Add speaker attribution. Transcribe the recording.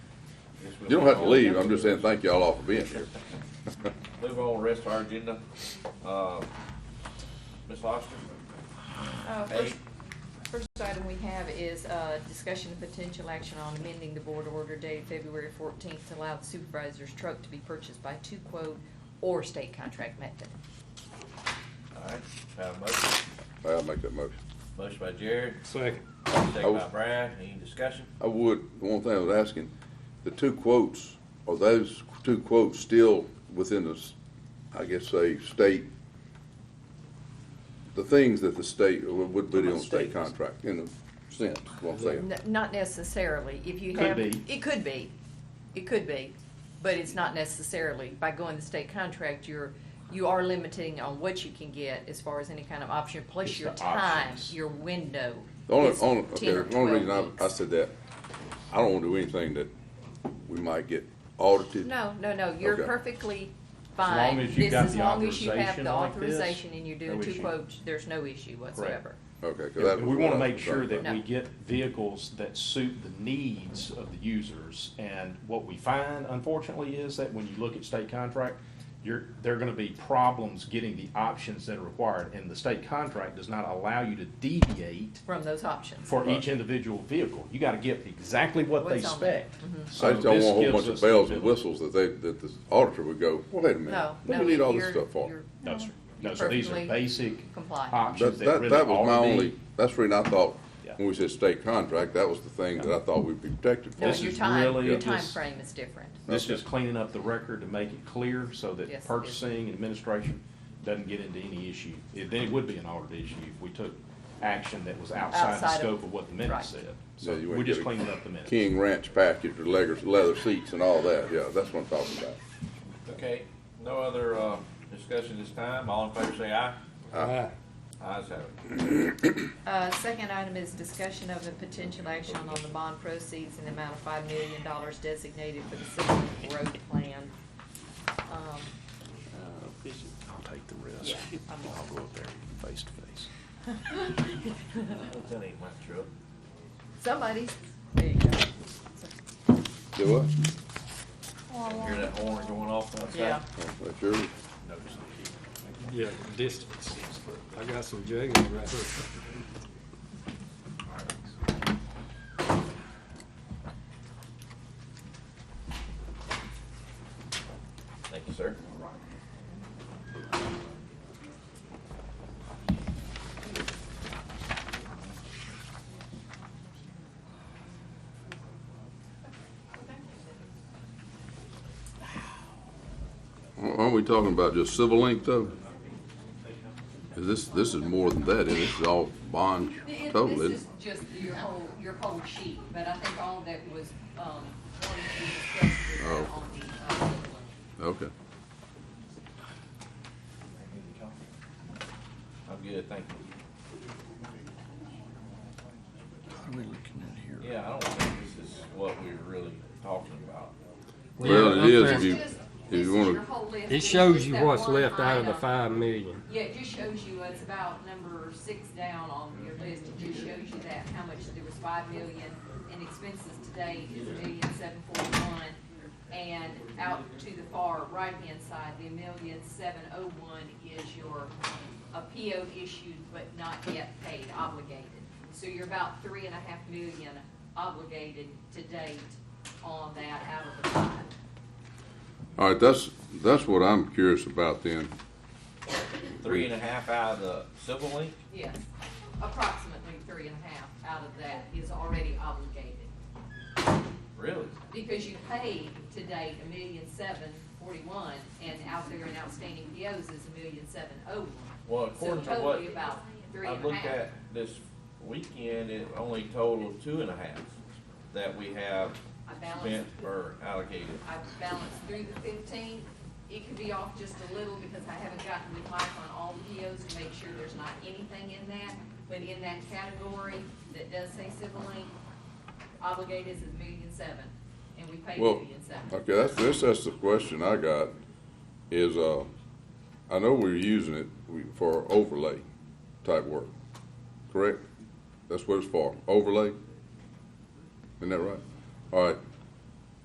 Speaker 1: You don't have to leave, I'm just saying thank y'all all for being here.
Speaker 2: Move on, rest of our agenda. Uh, Ms. Foster?
Speaker 3: Uh,
Speaker 2: Eight.
Speaker 3: First first item we have is uh, discussion of potential action on amending the board order dated February 14th to allow the supervisor's truck to be purchased by two quote or state contract method.
Speaker 2: All right, have a motion.
Speaker 1: I'll make that motion.
Speaker 2: Motion by Jared,
Speaker 4: Second.
Speaker 1: Oh.
Speaker 2: second by Brian. Any discussion?
Speaker 1: I would, the one thing I was asking, the two quotes, are those two quotes still within the, s- I guess, say, state? The things that the state uh, would would be on state contract, in a sense, what I'm saying.
Speaker 3: N- Not necessarily, if you
Speaker 4: Could
Speaker 3: have.
Speaker 4: be.
Speaker 3: It could be, it could be, but it's not necessarily. By going the state contract, you're, you are limiting on what you can get as far as any kind of option, plus
Speaker 4: It's
Speaker 3: your
Speaker 4: the
Speaker 3: time,
Speaker 4: options.
Speaker 3: your window.
Speaker 1: The only,
Speaker 3: is
Speaker 1: only,
Speaker 3: 10
Speaker 1: okay,
Speaker 3: or
Speaker 1: the only
Speaker 3: 12
Speaker 1: reason
Speaker 3: weeks.
Speaker 1: I, I said that, I don't wanna do anything that we might get audited.
Speaker 3: No, no, no, you're
Speaker 1: Okay.
Speaker 3: perfectly
Speaker 4: long
Speaker 3: fine.
Speaker 4: as you
Speaker 3: This-
Speaker 4: got
Speaker 3: as
Speaker 4: the
Speaker 3: long as you have
Speaker 4: authorization
Speaker 3: the
Speaker 4: like this,
Speaker 3: authorization and you're doing
Speaker 4: no
Speaker 3: two
Speaker 4: issue.
Speaker 3: quotes, there's no issue whatsoever.
Speaker 1: Okay, 'cause that was
Speaker 4: We
Speaker 1: what I
Speaker 4: want to
Speaker 1: was
Speaker 4: make sure
Speaker 1: concerned about.
Speaker 4: that we
Speaker 3: No.
Speaker 4: get vehicles that suit the needs of the users. And what we find unfortunately is that when you look at state contract, you're, there are going to be problems getting the options that are required. And the state contract does not allow you to deviate
Speaker 3: From those options.
Speaker 4: for each individual vehicle. You got to get exactly what they
Speaker 3: What's on Mm-hmm. there.
Speaker 4: spec.
Speaker 1: I
Speaker 4: So
Speaker 1: just don't
Speaker 4: Oh,
Speaker 1: want a
Speaker 4: this
Speaker 1: whole
Speaker 4: gives
Speaker 1: bunch
Speaker 4: us
Speaker 1: of
Speaker 4: the
Speaker 1: bells and
Speaker 4: ability-
Speaker 1: whistles that they, that the auditor would go, wait a minute,
Speaker 3: No,
Speaker 1: what
Speaker 3: no,
Speaker 1: do we need all this
Speaker 3: you're-
Speaker 1: stuff for?
Speaker 3: you're-
Speaker 4: No, sir. No,
Speaker 3: You're
Speaker 4: so these are
Speaker 3: perfectly
Speaker 4: basic
Speaker 3: compliant.
Speaker 1: That,
Speaker 4: options that
Speaker 1: that,
Speaker 4: really
Speaker 1: that was my
Speaker 4: already-
Speaker 1: only, that's the reason I thought,
Speaker 4: Yeah.
Speaker 1: when we said state contract, that was the thing that I thought we'd be protected
Speaker 3: No,
Speaker 1: from.
Speaker 4: This
Speaker 3: your
Speaker 4: is
Speaker 3: time,
Speaker 4: really
Speaker 3: your time
Speaker 4: just-
Speaker 3: frame is different.
Speaker 4: This
Speaker 1: Okay.
Speaker 4: is cleaning up the record to make it clear so
Speaker 3: Yes, it
Speaker 4: that
Speaker 3: is.
Speaker 4: purchasing and administration doesn't get into any issue. It- Then it would be an audit issue if we took action that was outside the
Speaker 3: Outside of-
Speaker 4: scope of what the minutes
Speaker 3: right.
Speaker 4: said.
Speaker 1: Yeah,
Speaker 4: So
Speaker 1: you
Speaker 4: we're
Speaker 1: ain't
Speaker 4: just
Speaker 1: getting
Speaker 4: cleaning up the minutes.
Speaker 1: King Ranch package with leather, leather seats and all that, yeah, that's what I'm talking about.
Speaker 2: Okay, no other, uh, discussion this time. All in favor say aye. Ayes have it.
Speaker 3: Uh, second item is discussion of the potential action on the bond proceeds in the amount of five million dollars designated for the city road plan. Um,
Speaker 4: Uh, I'll take the
Speaker 3: yeah,
Speaker 4: risk.
Speaker 3: I'm-
Speaker 4: go up there face to face.
Speaker 2: That ain't my truck.
Speaker 3: Somebody's, there you go.
Speaker 1: Do what?
Speaker 2: Hear that horn going off outside?
Speaker 3: Yeah.
Speaker 1: Oh, That's yours?
Speaker 2: Notice the key.
Speaker 5: Yeah, distance. I got some jiggers right here.
Speaker 2: Thank you, sir.
Speaker 1: Aren't we talking about just civil link though? Is this, this is more than that, isn't it? This is all bond
Speaker 3: It-
Speaker 1: total, isn't
Speaker 3: This is just your whole, your whole sheet, but I think all that was, um, wanted to be discussed was
Speaker 1: Oh.
Speaker 3: on the, uh, other one.
Speaker 1: it? Okay.
Speaker 2: I'm good, thank you.
Speaker 6: What are we looking at here?
Speaker 2: Yeah, I don't think this is what we're really talking about.
Speaker 1: Well,
Speaker 5: Yeah,
Speaker 1: it is
Speaker 5: up
Speaker 1: if
Speaker 5: there.
Speaker 1: you,
Speaker 3: It's just-
Speaker 1: if you
Speaker 3: this is your
Speaker 1: wanna,
Speaker 3: whole list.
Speaker 5: It
Speaker 3: It's
Speaker 5: shows
Speaker 3: just
Speaker 5: you
Speaker 3: that
Speaker 5: what's
Speaker 3: one
Speaker 5: left out of the
Speaker 3: item.
Speaker 5: five million.
Speaker 3: Yeah, it just shows you, it's about number six down on your list, it just shows you that, how much, there was five million, and expenses today is a million seven forty-one, and out to the far right-hand side, the million seven oh one is your, a PO issued but not yet paid obligated. So you're about three and a half million obligated to date on that out of the five.
Speaker 1: all right, that's, that's what I'm curious about then.
Speaker 2: Three and a half out of the civil link?
Speaker 3: Yes, approximately three and a half out of that is already obligated,
Speaker 2: Really?
Speaker 3: because you paid to date a million seven forty-one, and out there in outstanding POs is a million seven oh one.
Speaker 2: Well,
Speaker 3: So
Speaker 2: according to what
Speaker 3: totally about three
Speaker 2: I
Speaker 3: and a
Speaker 2: looked
Speaker 3: half.
Speaker 2: at this weekend, it only totaled two and a half that we have
Speaker 3: I balanced,
Speaker 2: spent or allocated.
Speaker 3: I balanced through the fifteen, it could be off just a little, because I haven't gotten with Mike on all the POs to make sure there's not anything in that, but in that category that does say civil link, obligated is a million seven, and we paid a
Speaker 1: Well,
Speaker 3: million seven.
Speaker 1: Okay, that's, this, that's the question I got, is, uh, I know we're using it we- for overlay type work, correct? That's what it's for, overlay? Isn't that right? All right,